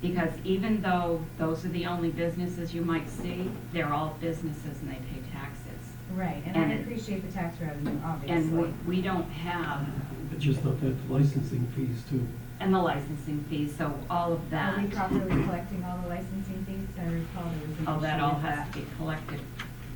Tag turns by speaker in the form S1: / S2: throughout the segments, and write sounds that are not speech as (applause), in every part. S1: Because even though those are the only businesses you might see, they're all businesses and they pay taxes.
S2: Right, and I
S1: And-
S2: appreciate the tax revenue,
S1: And
S2: obviously.
S1: we- we don't have,
S3: But just not that licensing fees too.
S1: and the licensing fees, so all of that.
S2: Are we properly collecting all the licensing fees? I recall there was an
S1: Oh, that
S2: issue
S1: all
S2: with
S1: has to be collected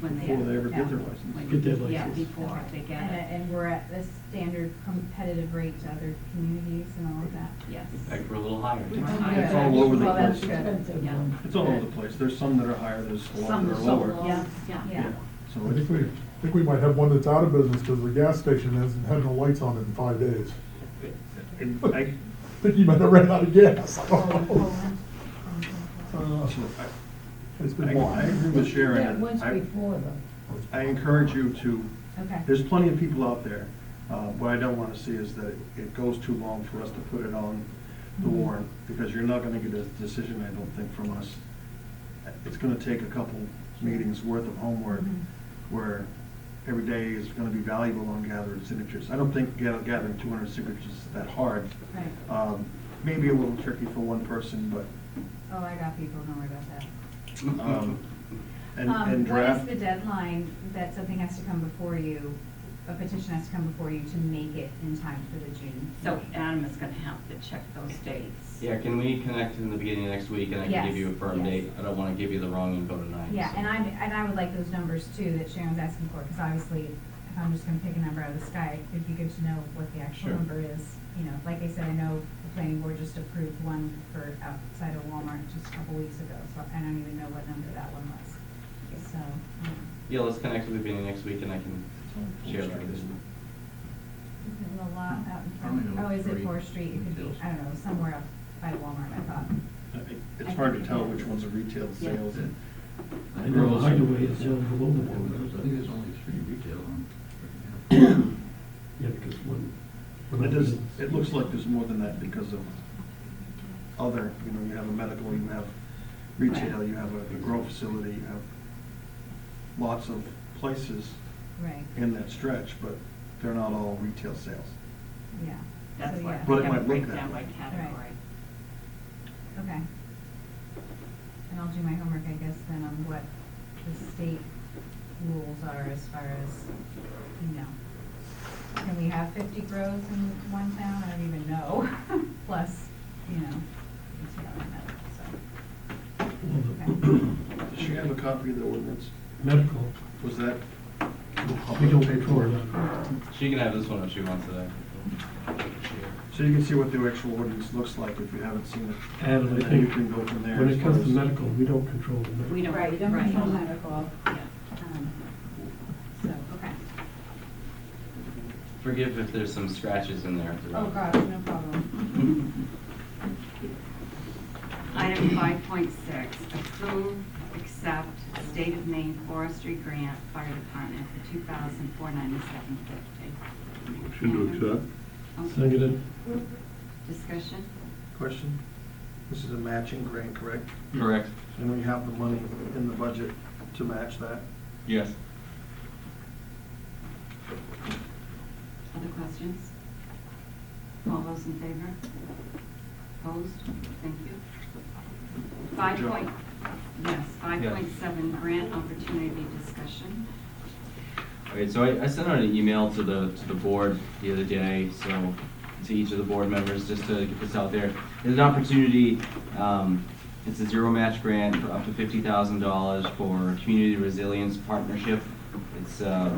S1: when they.
S4: Before they ever get their
S2: Yeah.
S4: license.
S1: when-
S3: Get their
S1: Yeah,
S3: license.
S1: before they get
S2: And,
S1: it,
S2: and we're at the standard competitive rate to other communities and all of that. Oh,
S1: yes.
S5: In fact, we're a little higher.
S4: It's all over the
S2: Well, that's
S4: place.
S2: good.
S1: Yeah.
S4: It's all over the place. There's some that are higher, there's some
S1: Some
S4: that
S1: are
S4: are
S1: so
S4: lower.
S1: low,
S2: Yeah.
S1: yeah.
S2: Yeah.
S4: So
S6: I
S4: it's,
S6: think we, I think we might have one that's out of business because the gas station hasn't had no lights on in five days.
S4: it- I,
S6: I think you might have ran out of gas.
S2: Poland, Poland.
S6: Uh,
S4: so I-
S6: It's been
S4: I
S6: wild.
S4: I agree with Sharon.
S7: once
S4: I-
S7: before though.
S4: I encourage you to,
S2: Okay.
S4: there's plenty of people out there. Uh, What I don't want to see is that it goes too long for us to put it on the
S2: Mhm.
S4: warrant, because you're not going to get a decision, I don't think, from us. It's going to take a couple meetings worth of homework,
S2: Mhm.
S4: where every day is going to be valuable on gathering signatures. I don't think gather- gathering 200 signatures is that hard.
S2: Right.
S4: Um, Maybe a little tricky for one person, but,
S2: Oh, I got people, don't worry about that.
S4: um, and
S2: Um,
S4: and draft.
S2: What is the deadline that something has to come before you, a petition has to come before you to make it in time for the June?
S1: So
S2: meeting?
S1: Adam is gonna have to check those dates.
S5: Yeah, can we connect in the beginning of next week and I
S2: Yes,
S5: can give you a firm
S2: yes.
S5: date? I don't want to give you the wrong info tonight.
S2: Yeah,
S5: so.
S2: and I, and I would like those numbers too that Sharon was asking for, because obviously, if I'm just gonna pick a number out of the sky, it'd be good to know what the actual
S5: Sure.
S2: number is. You know, like I said, I know the planning board just approved one for outside of Walmart just a couple weeks ago, so I don't even know what number that one was. So, um,
S5: Yeah, let's connect in the beginning of next week and I can share that with you.
S2: There's a lot out in front,
S8: Probably
S2: oh,
S8: no
S2: is it
S8: three
S2: Fourth Street, it could be,
S8: details.
S2: I don't know, somewhere up by Walmart, I thought.
S4: It's hard to tell which ones are retail sales and
S3: I know the hideaway is down below the
S8: I think
S3: water.
S8: there's only three retail on.
S3: (clears throat) Yeah, because one. one
S4: It
S3: of
S4: does,
S3: the-
S4: it looks like there's more than that because of other, you know, you have a medical, you have retail, you have a grow facility, you have lots of places
S2: Right,
S4: in that stretch, but they're not all retail sales.
S2: yeah.
S1: That's
S2: So,
S1: why
S2: yeah.
S1: we
S4: But it
S1: have a
S4: might look
S1: breakdown
S4: that
S1: by
S4: way.
S1: category.
S2: Okay. And I'll do my homework, I guess, then on what the state rules are as far as, you know. Can we have fifty grows in one town? I don't even know. (laughs) Plus, you know, retail and that, so,
S3: well, the
S2: okay.
S4: Does she have a copy of the ordinance?
S3: Medical,
S4: Was that?
S3: we don't pay for that.
S5: She can have this one if she wants it. actually.
S4: So you can see what the actual ordinance looks like if you haven't seen it.
S3: Adam,
S4: And
S3: I
S4: then you
S3: think
S4: can go from there.
S3: when
S4: as
S3: it comes
S4: far
S3: to
S4: as-
S3: medical, we don't control the medical.
S1: We don't.
S7: Right, you don't control medical.
S1: Yeah.
S2: Um, So, okay.
S5: Forgive if there's some scratches in there.
S2: Oh, gosh, no problem.
S7: (laughs)
S1: Item five point six, approve, accept State of Maine Forestry Grant Fire Department for two thousand four ninety-seven fifty. Oh.
S8: Motion to accept.
S3: Seconded,
S1: Discussion?
S4: Question? This is a matching grant, correct?
S8: Correct,
S4: And we have the money in the budget to match that?
S8: yes.
S1: Other questions? All those in favor? Opposed? Thank you. Five
S4: Joe.
S1: point, yes, five
S5: Yes.
S1: point seven grant opportunity discussion.
S5: Okay, so I, I sent out an email to the, to the board the other day, so to each of the board members, just to get this out there. There's an opportunity, um, it's a zero match grant for up to fifty thousand dollars for Community Resilience Partnership. It's, uh,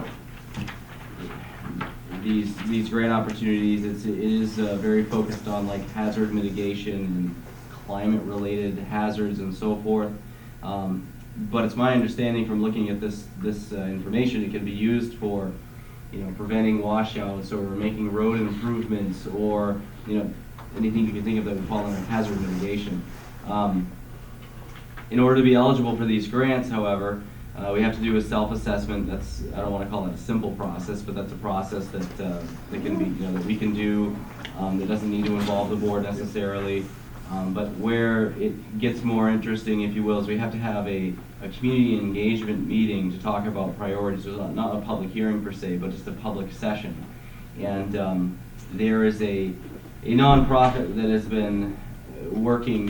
S5: these, these grant opportunities, it's, it is uh, very focused on like hazard mitigation and climate-related hazards and so forth. Um, But it's my understanding from looking at this, this uh, information, it can be used for, you know, preventing washouts or making road improvements or, you know, anything you can think of that would fall under hazard mitigation. Um, in order to be eligible for these grants, however, uh, we have to do a self-assessment. That's, I don't want to call it a simple process, but that's a process that, uh, that can be, you know, that we can do, um, that doesn't need to involve the board necessarily. Um, But where it gets more interesting, if you will, is we have to have a, a community engagement meeting to talk about priorities. It's Not not a public hearing per se, but just a public session. And um, there is a, a nonprofit that has been uh, working